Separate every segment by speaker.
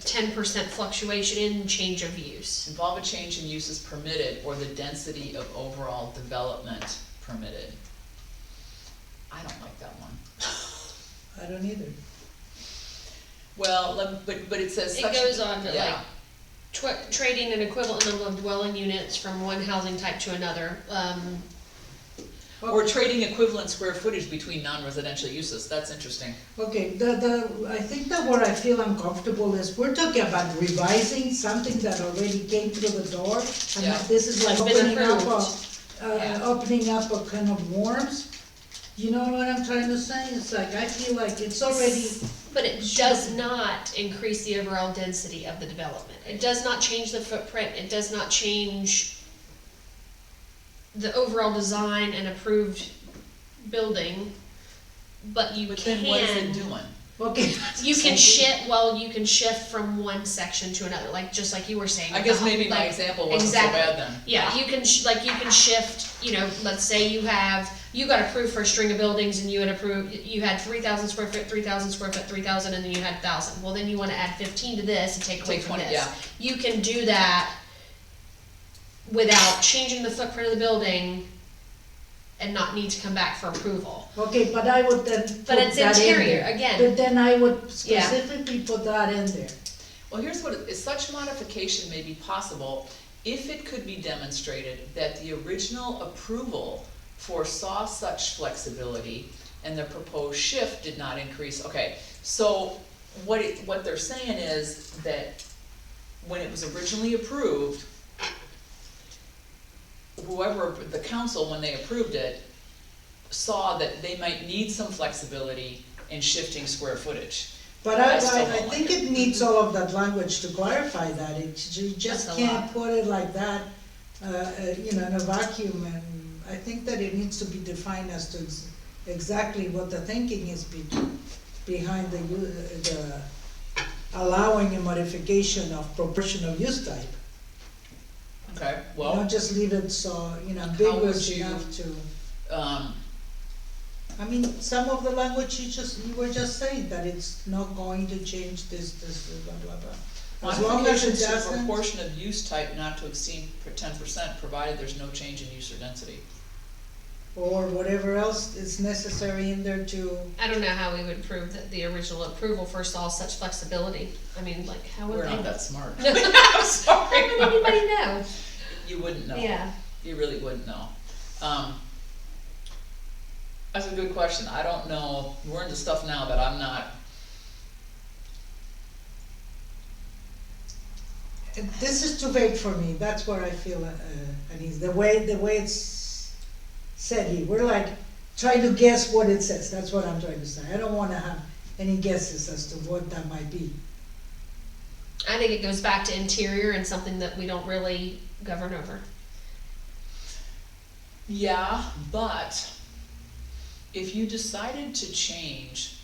Speaker 1: ten percent fluctuation in change of use.
Speaker 2: Involve a change in uses permitted or the density of overall development permitted. I don't like that one.
Speaker 3: I don't either.
Speaker 2: Well, let- but, but it says
Speaker 1: It
Speaker 2: such-
Speaker 1: goes on to
Speaker 2: Yeah.
Speaker 1: like, tw- trading an equivalent number of dwelling units from one housing type to another, um,
Speaker 2: Or trading equivalent square footage between non-residential uses, that's interesting.
Speaker 3: Okay, the, the, I think that where I feel uncomfortable is, we're talking about revising something that already came through the door, and
Speaker 2: Yeah.
Speaker 3: that this is like
Speaker 1: Has been
Speaker 3: opening up a,
Speaker 1: approved.
Speaker 3: uh,
Speaker 2: Yeah.
Speaker 3: opening up a can of worms. You know what I'm trying to say? It's like, I feel like it's already,
Speaker 1: but it does not increase the overall density of the development. It does not change the footprint, it does not change the overall design and approved building, but you
Speaker 2: But then what is it
Speaker 1: can,
Speaker 2: doing?
Speaker 3: okay.
Speaker 1: you can shift, well, you can shift from one section to another, like, just like you were saying.
Speaker 2: I guess
Speaker 1: about,
Speaker 2: maybe my
Speaker 1: like,
Speaker 2: example wasn't so
Speaker 1: exactly.
Speaker 2: bad then.
Speaker 1: Yeah, you can, sh- like, you can shift, you know, let's say you have, you got approved for a string of buildings and you had approved, you had three thousand square foot, three thousand square foot, three thousand, and then you had thousand. Well, then you wanna add fifteen to this and take away
Speaker 2: Take
Speaker 1: from
Speaker 2: 20,
Speaker 1: this.
Speaker 2: yeah.
Speaker 1: You can do that without changing the footprint of the building and not need to come back for approval.
Speaker 3: Okay, but I would then put
Speaker 1: But it's
Speaker 3: that in
Speaker 1: interior,
Speaker 3: there.
Speaker 1: again.
Speaker 3: But then I would
Speaker 1: Yeah.
Speaker 3: specifically put that in there.
Speaker 2: Well, here's what, it is such modification may be possible if it could be demonstrated that the original approval foresaw such flexibility and the proposed shift did not increase, okay, so what it, what they're saying is that when it was originally approved, whoever, the council, when they approved it, saw that they might need some flexibility in shifting square footage.
Speaker 3: But I,
Speaker 2: I still
Speaker 3: I, I
Speaker 2: don't like
Speaker 3: think
Speaker 2: it.
Speaker 3: it needs all of that language to clarify that, it, you just
Speaker 1: That's a
Speaker 3: can't
Speaker 1: lot.
Speaker 3: put it like that, uh, uh, you know, in a vacuum, and I think that it needs to be defined as to ex- exactly what the thinking is be, behind the, u- the allowing a modification of proportional use type.
Speaker 2: Okay, well.
Speaker 3: Don't just leave it so, you know,
Speaker 2: How would
Speaker 3: ambiguous
Speaker 2: you-
Speaker 3: enough to,
Speaker 2: um,
Speaker 3: I mean, some of the language you just, you were just saying, that it's not going to change this, this, blah, blah, blah. As long as
Speaker 2: modifications
Speaker 3: it
Speaker 2: to
Speaker 3: doesn't.
Speaker 2: proportion of use type not to exceed ten percent, provided there's no change in use or density.
Speaker 3: or whatever else is necessary in there to,
Speaker 1: I don't know how we would prove that the original approval foresaw such flexibility. I mean, like, how would
Speaker 2: We're
Speaker 1: they?
Speaker 2: not that smart.
Speaker 1: No.
Speaker 2: I'm
Speaker 1: How would
Speaker 2: sorry.
Speaker 1: anybody know?
Speaker 2: You wouldn't know.
Speaker 1: Yeah.
Speaker 2: You really wouldn't know. Um, that's a good question. I don't know. We're into stuff now that I'm not.
Speaker 3: this is too vague for me, that's where I feel uh, uneasy, the way, the way it's said here, we're like, trying to guess what it says, that's what I'm trying to say, I don't wanna have any guesses as to what that might be.
Speaker 1: I think it goes back to interior and something that we don't really govern over.
Speaker 2: Yeah, but if you decided to change,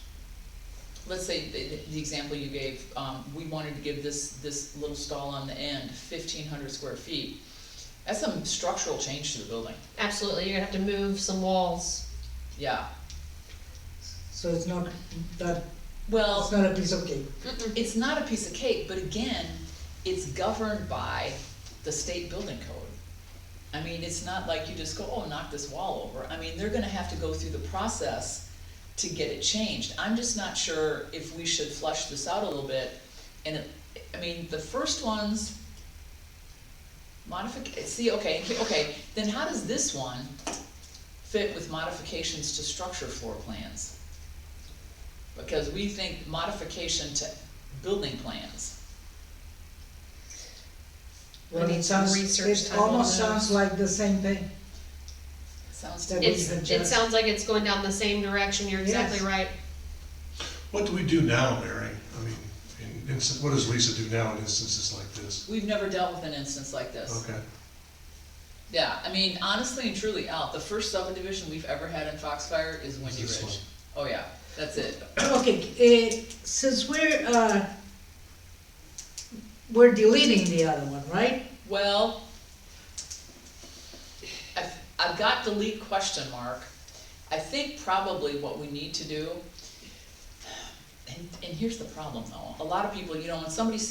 Speaker 2: let's say the, the example you gave, um, we wanted to give this, this little stall on the end fifteen hundred square feet. That's some structural change to the building,
Speaker 1: Absolutely, you're gonna have to move some walls.
Speaker 2: yeah.
Speaker 3: So it's not, that, it's
Speaker 2: Well,
Speaker 3: not a piece of cake,
Speaker 2: it's not a piece of cake, but again, it's governed by the state building code. I mean, it's not like you just go, oh, knock this wall over. I mean, they're gonna have to go through the process to get it changed. I'm just not sure if we should flush this out a little bit. And it, I mean, the first ones, modific, see, okay, okay, then how does this one fit with modifications to structure floor plans? Because we think modification to building plans.
Speaker 1: We
Speaker 3: well,
Speaker 1: need
Speaker 3: it
Speaker 1: some
Speaker 3: sounds,
Speaker 1: research
Speaker 3: it
Speaker 1: time on
Speaker 3: almost
Speaker 1: those.
Speaker 3: sounds like the same thing,
Speaker 2: Sounds
Speaker 3: that
Speaker 2: to
Speaker 3: we
Speaker 2: me,
Speaker 1: It's,
Speaker 3: had
Speaker 1: it
Speaker 3: just.
Speaker 1: sounds like it's going down the same direction, you're exactly
Speaker 3: Yes.
Speaker 1: right.
Speaker 4: What do we do now, Mary? I mean, in, in, what does Lisa do now in instances like this?
Speaker 2: we've never dealt with an instance like this.
Speaker 4: Okay,
Speaker 2: Yeah, I mean, honestly and truly, Al, the first subdivision we've ever had in Foxfire is Windy
Speaker 4: This
Speaker 2: Ridge. Oh,
Speaker 4: one.
Speaker 2: yeah, that's it.
Speaker 3: Okay, uh, since we're, uh, we're deleting the other one, right?
Speaker 2: Well, I've, I've got delete question mark. I think probably what we need to do, and, and here's the problem though, a lot of people, you know, when somebody